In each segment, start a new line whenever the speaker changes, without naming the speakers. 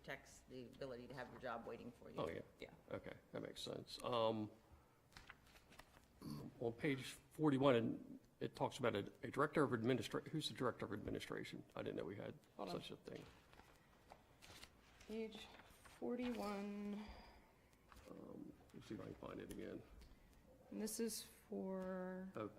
protects the ability to have your job waiting for you.
Oh, yeah.
Yeah.
Okay, that makes sense. Um, On page 41, and it talks about a a director of administration. who's the director of administration? I didn't know we had
Hold on.
such a thing.
Page forty-one,
Um, Let's see if I can find it again.
and this is for,
Well, uh,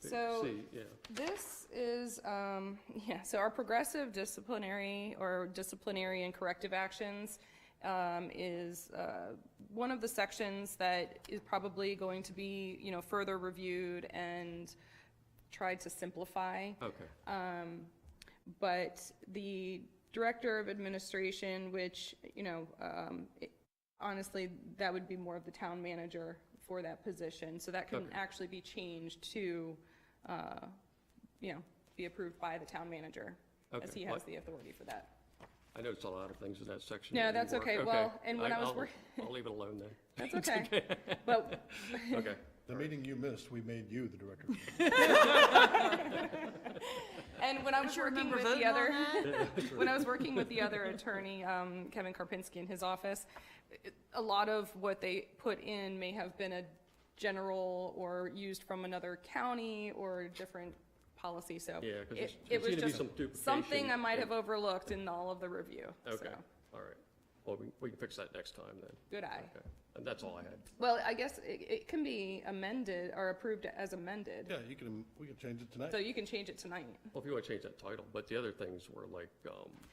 they-
So-
see, Yeah,
this is, um, yeah, so our progressive disciplinary or disciplinary and corrective actions um, is, uh, one of the sections that is probably going to be, you know, further reviewed and tried to simplify.
okay,
but the director of administration, which, you know, um, it- honestly, that would be more of the town manager for that position. So that can
Okay.
actually be changed to, uh, you know, be approved by the town manager, as
Okay,
he has
what-
the authority for that.
I noticed a lot of things in that section.
No,
that didn't
that's okay.
work.
Well, and when
I-
I was
I'll-
work-
I'll leave it alone then.
That's okay. But
Okay,
The meeting you missed, we made you the director.
And when I was
you
working
remember
with the
voting on
other, when I was working with the other attorney, um, Kevin Karpinski in his office, it- a lot of what they put in may have been a general or used from another county or different policy, so.
Yeah, 'cause
it-
there's-
it
there
was
seemed to be
just
some duplication.
Something I might
Yeah.
have overlooked in all of the review,
okay,
so,
all right. Well, we we can fix that next time then.
good eye.
Okay, And that's all I had.
Well, I guess it, it can be amended or approved as amended,
Yeah, you can, we can change it tonight.
so you can change it tonight.
Well, if you want to change that title, but the other things were like, um,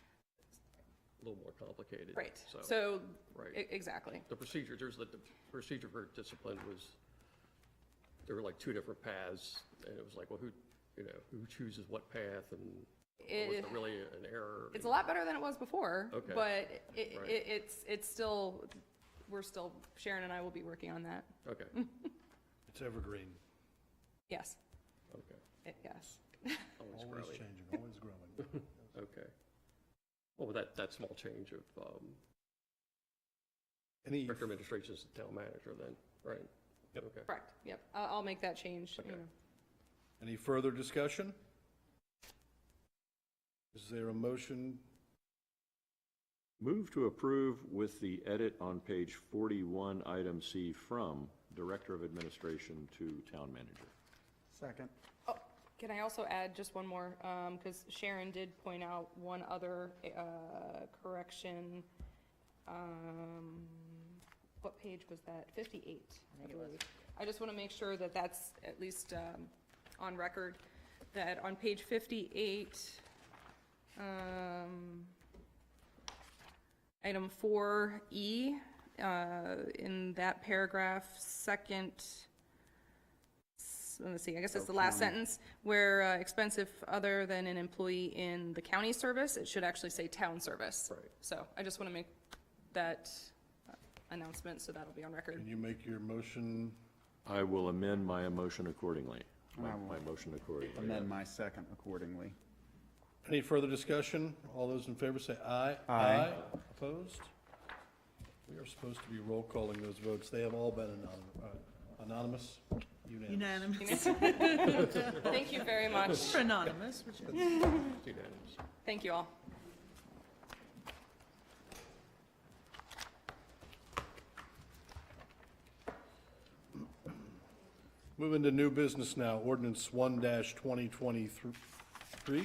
a little more complicated.
Right,
So,
so,
Right.
e- exactly.
the procedure, there's the, the procedure for discipline was, there were like two different paths, and it was like, well, who, you know, who chooses what path, and was
It-
there really an error?
It's a lot better than it was before,
Okay.
but it, it,
Right.
it's, it's still, we're still, Sharon and I will be working on that.
Okay,
Mm.
It's evergreen,
Yes,
okay.
it- yes.
Always
always
growing.
changing, always growing.
Okay. Well, that, that small change of, um,
Any,
director of administration is the town manager then, right?
Yep.
Okay.
Correct, yep. I'll, I'll make that change. you
Okay.
know.
any further discussion? Is there a motion?
Move to approve with the edit on page 41, item C, from Director of Administration to Town Manager.
Second.
Oh, Can I also add just one more, um, because Sharon did point out one other, uh, correction. Um, what page was that? Fifty-eight, I believe. I just want to make sure that that's at least, um, on record, that on page fifty-eight, um, item four E, uh, in that paragraph, second, s- let me see, I guess it's the last sentence, where uh, expensive other than an employee in the county service, it should actually say town service.
Right.
So I just want to make that uh, announcement, so that'll be on record.
Can you make your motion?
I will amend my motion accordingly, my
I will.
my motion accordingly.
Amend my second accordingly.
Any further discussion? All those in favor say aye.
Aye.
Opposed? We are supposed to be roll calling those votes. They have all been anon- uh, anonymous, unanimous.
Unanimous.
Thank you very much.
For anonymous, which is.
It's Unanimous.
Thank you all.
Moving to new business now, ordinance one twenty twenty-three,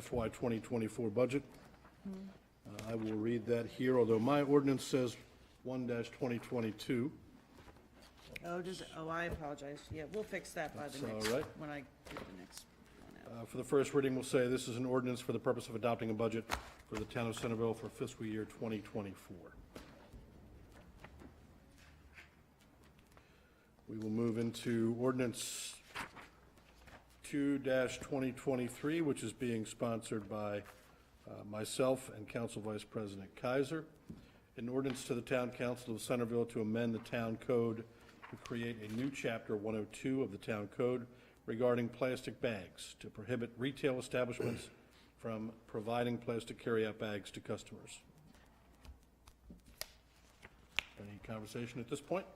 FY twenty twenty-four budget. Uh, I will read that here, although my ordinance says one twenty twenty-two.
Oh, does, it- oh, I apologize. Yeah, we'll fix that by the
That's all
next,
right.
when I do the next one out.
Uh, For the first reading, we'll say this is an ordinance for the purpose of adopting a budget for the town of Centerville for fiscal year 2024. We will move into ordinance 2-2023, which is being sponsored by uh, myself and Council Vice President Kaiser. An ordinance to the Town Council of Centerville to amend the town code to create a new chapter 102 of the town code regarding plastic bags to prohibit retail establishments from providing plastic carryout bags to customers. Any conversation at this point?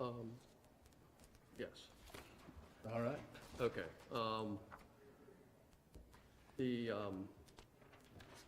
Um, yes.
All right.
Okay, um, the, um,